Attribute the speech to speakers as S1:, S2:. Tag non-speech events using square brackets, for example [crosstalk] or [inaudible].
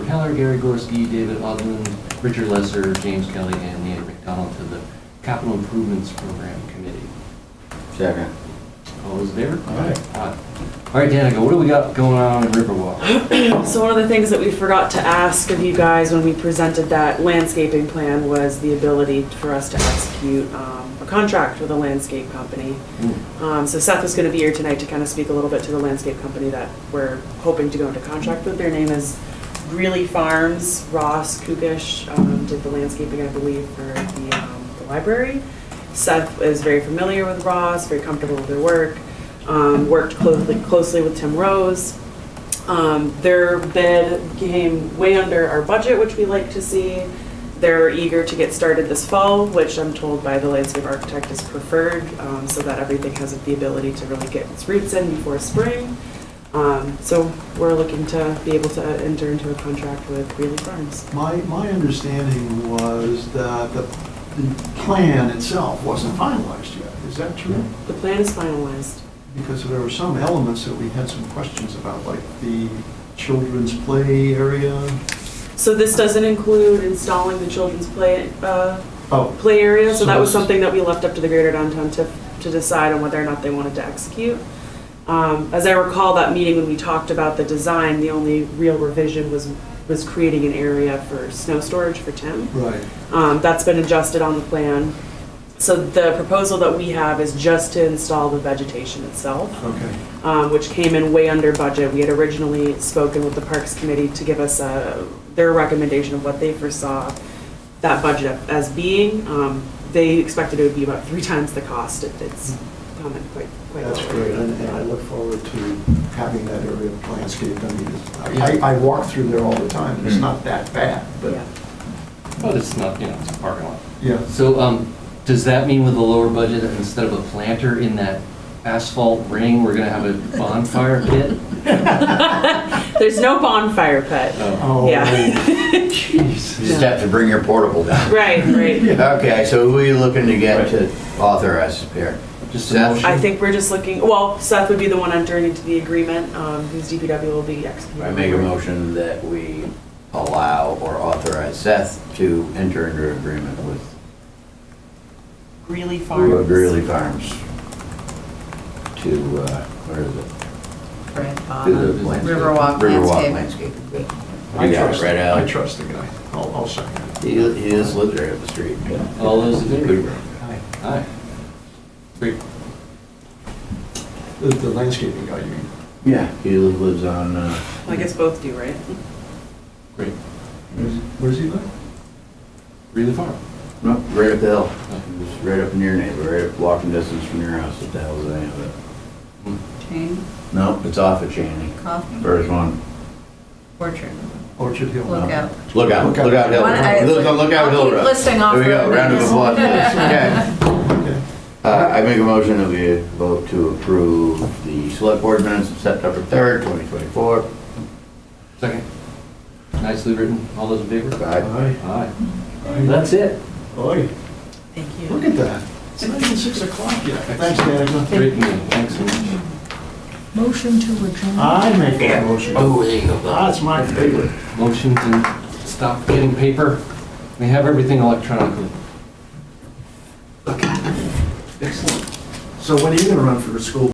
S1: Keller, Gary Gorski, David Ogden, Richard Lesser, James Kelly, and Leander McDonald to the Capital Improvements Program Committee.
S2: Second.
S3: [laughs]
S1: All those in favor?
S2: Aye.
S1: Aye. All right, Danica, what do we got going on in Riverwalk?
S3: So one of the things that we forgot to ask of you guys when we presented that landscaping plan was the ability for us to execute um, a contract with a landscape company. Um, So Seth is going to be here tonight to kind of speak a little bit to the landscape company that we're hoping to go into contract with. Their name is Greeley Farms, Ross Kukish um, did the landscaping, I believe, for the um, the library. Seth is very familiar with Ross, very comfortable with their work, um, worked closely closely with Tim Rose. Um, Their bid came way under our budget, which we like to see. They're eager to get started this fall, which I'm told by the landscape architect is preferred, um, so that everything has the ability to really get its roots in before spring. Um, So we're looking to be able to enter into a contract with Greeley Farms.
S4: My, my understanding was that the, the plan itself wasn't finalized yet. Is that true?
S3: The plan is finalized.
S4: Because there were some elements that we had some questions about, like the children's play area.
S3: So this doesn't include installing the children's play, uh,
S4: Oh,
S3: play area, so that was
S4: So-
S3: something that we left up to the greater downtown TIF to decide on whether or not they wanted to execute. Um, As I recall, that meeting when we talked about the design, the only real revision was, was creating an area for snow storage for Tim.
S4: right.
S3: Um, That's been adjusted on the plan. So the proposal that we have is just to install the vegetation itself
S4: Okay.
S3: um, which came in way under budget. We had originally spoken with the Parks Committee to give us uh, their recommendation of what they foresaw that budget as being. Um, They expected it would be about three times the cost. It- It's come in quite, quite well.
S4: That's great, and, and I look forward to having that area landscaped. I mean, it's- I, I walk through there all the time,
S2: Mm.
S4: and it's not that bad, but,
S3: Yeah. [laughs]
S1: But it's not, you know, it's a parking lot.
S4: yeah.
S1: So, um, does that mean with a lower budget, that instead of a planter in that asphalt ring, we're gonna have a bonfire pit?
S3: There's no bonfire pit.
S1: Oh,
S4: Oh,
S3: Yeah.
S4: [laughs] Jeez.
S2: You just have to bring your portable down.
S3: [laughs] Right, right.
S2: Okay, so who are you looking to get to authorize here?
S1: Just a
S2: Seth?
S1: motion.
S3: I think we're just looking, well, Seth would be the one entering into the agreement, um, whose DPW will be executing.
S2: I make a motion that we allow or authorize Seth to enter into agreement with
S3: Greeley Farms.
S2: Greeley Farms to, uh, what is it?
S5: Brad
S2: Do
S5: Bob.
S2: the landscape-
S5: Riverwalk
S3: Oh,
S2: Riverwalk
S5: landscape.
S2: landscape.
S4: I
S2: You got it
S4: trust-
S2: right out.
S4: I trust the guy. I'll, I'll second it.
S2: He he just lives right up the street.
S1: All those in favor?
S4: Aye.
S1: Aye. Great.
S4: The- The landscaping guy, you mean?
S2: Yeah, he lives on, uh,
S3: I guess both do, right?
S1: Great.
S4: Where's he live?
S1: Really far.
S2: no, right up the hill. Just right up in your neighbor, right up walking distance from your house, what the hell is the name of it?
S1: Hmm.
S5: Chain,
S2: No, it's off of Cheney.
S5: Coffee,
S2: First one.
S5: Orchard,
S4: Orchard Hill.
S5: Lookout.
S2: Lookout, Lookout Hill.
S5: Why don't I-
S2: Look- Lookout
S5: I'll
S2: Hill
S5: keep
S2: Road.
S5: listing off
S2: There we go,
S5: road
S2: round of
S5: names. [laughs]
S2: applause. Okay.
S4: Okay.
S2: Uh, I make a motion that we vote to approve the select board minutes of September 3rd, 2024.
S1: Second. Nicely written. All those in favor?
S2: Aye.
S1: Aye. That's it.
S4: Oi,
S5: Thank
S4: look
S5: you.
S4: at that. It's not even six o'clock yet. Thanks, Danica.
S1: Great meeting. Thanks so much.
S5: Motion to adjourn.
S4: I make that motion.
S2: Oh, there you go. Bob.
S4: That's my favorite.
S1: Motion to stop getting paper. We have everything electronically.
S4: So when are you gonna run for school